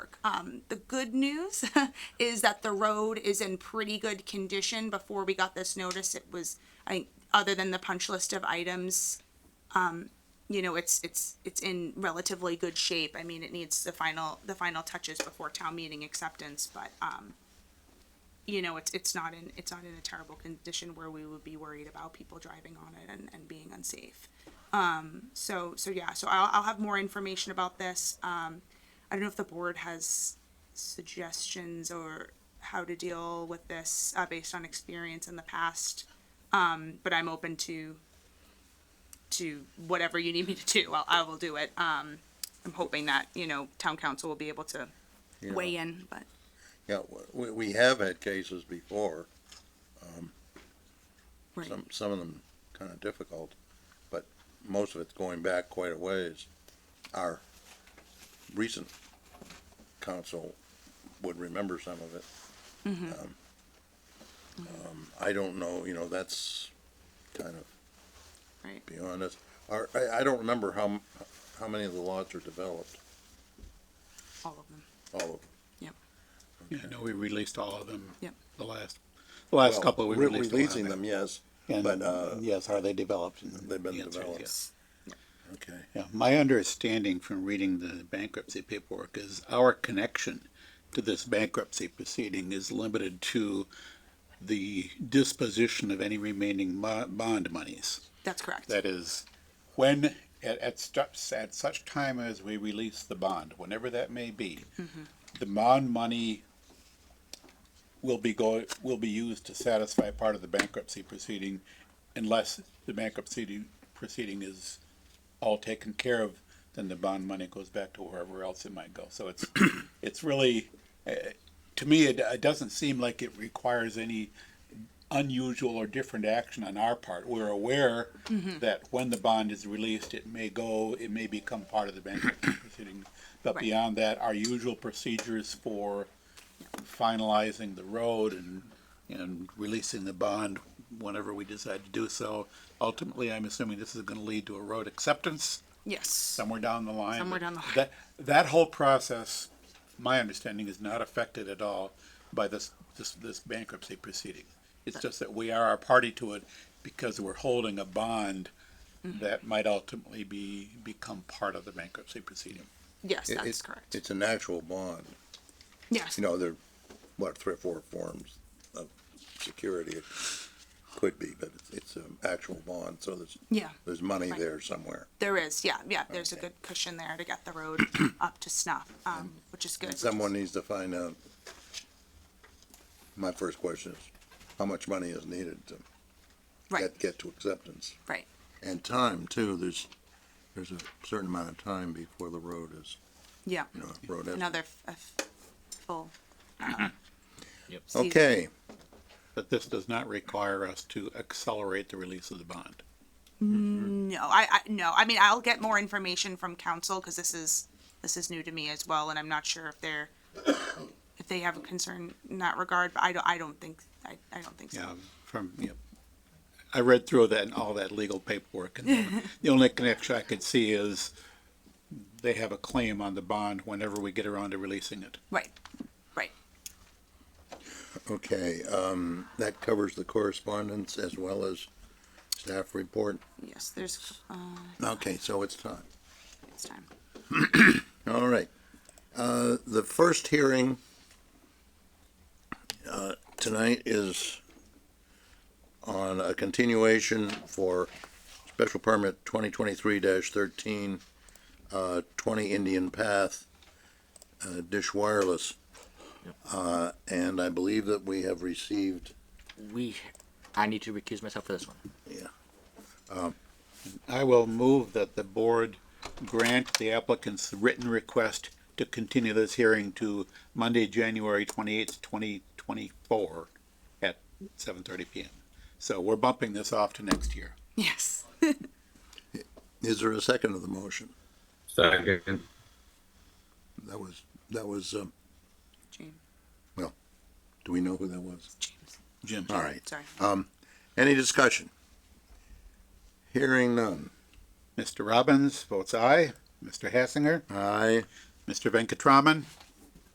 Um, the good news is that the road is in pretty good condition. Before we got this notice, it was, I, other than the punch list of items, um, you know, it's it's it's in relatively good shape. I mean, it needs the final the final touches before town meeting acceptance, but um, you know, it's it's not in it's not in a terrible condition where we would be worried about people driving on it and, and being unsafe. Um, so so yeah, so I'll I'll have more information about this. Um, I don't know if the board has suggestions or how to deal with this uh, based on experience in the past, um, but I'm open to to whatever you need me to do, I'll, I will do it. Um, I'm hoping that, you know, town council will be able to Yeah. weigh in, but Yeah, w- we, we have had cases before, right. some, some of them kind of difficult, but most of it's going back quite a ways. Our recent council would remember some of it. Mm-hmm. Um, um, I don't know, you know, that's kind of right. beyond us. Our, I, I don't remember how, m- how many of the lots are developed, All of them. all of them. Yep. Yeah, I know we released all of them. Yep. The last, the last Well, couple we re- released. a while Releasing back. them, yes, And, but, uh, yes, are they developed? And they've been the answer is developed. yes. okay. Yeah, my understanding from reading the bankruptcy paperwork is our connection to this bankruptcy proceeding is limited to the disposition of any remaining mo- bond monies. That's correct. That is, when, at, at steps, at such time as we release the bond, whenever that may be, the bond money will be go, will be used to satisfy part of the bankruptcy proceeding unless the bankruptcy proceeding is all taken care of, then the bond money goes back to wherever else it might go. So it's, it's really, uh, to me, it, it doesn't seem like it requires any unusual or different action on our part. We're aware that when the bond is released, it may go, it may become part of the bankruptcy proceeding. But Right. beyond that, our usual procedures for finalizing the road and, and releasing the bond whenever we decide to do so. Ultimately, I'm assuming this is gonna lead to a road acceptance yes. somewhere down the line. Somewhere but down the line. That, that whole process, my understanding, is not affected at all by this, this, this bankruptcy proceeding. It's just that we are a party to it because we're holding a bond Mm-hmm. that might ultimately be, become part of the bankruptcy proceeding. Yes, It- that's it's- correct. It's an actual bond. yes. you know, there, what, three or four forms of security it could be, but it's, it's an actual bond, so there's, yeah. there's money Right. there somewhere. There is. Yeah. Yeah. There's a good cushion there to get the road up to snuff, um, which is good. And someone needs to find out. My first question is, how much money is needed to Right. get, get to acceptance? Right. And time too, there's, there's a certain amount of time before the road is, Yeah. you know, road is. Another f- a f- full. uh, Yep. season. Okay, But this does not require us to accelerate the release of the bond. No, I, I no. I mean, I'll get more information from council because this is this is new to me as well, and I'm not sure if they're if they have a concern in that regard. But I don't. I don't think. I, I don't think so. Yeah, from, yep. I read through that and all that legal paperwork and the- the only connection I could see is they have a claim on the bond whenever we get around to releasing it. Right. Right. okay, um, that covers the correspondence as well as staff report. Yes. There's. Uh, Okay, so it's time. it's time. All right. Uh, The first hearing uh, tonight is on a continuation for special permit 2023-13, uh, 20 Indian Path, uh, Dish Wireless. Uh, And I believe that we have received, We, I need to recuse myself for this one. yeah, I will move that the board grant the applicant's written request to continue this hearing to Monday, January twenty-eighth, twenty twenty-four at seven thirty PM. So we're bumping this off to next year. Yes. is there a second of the motion? Second. That was, that was, um, James. do we know who that was? James. Jim? All right. Sorry. Um, Any discussion? Hearing none. Mr. Robbins votes aye. Mr. Hassinger? Aye. Mr. Venkatraman?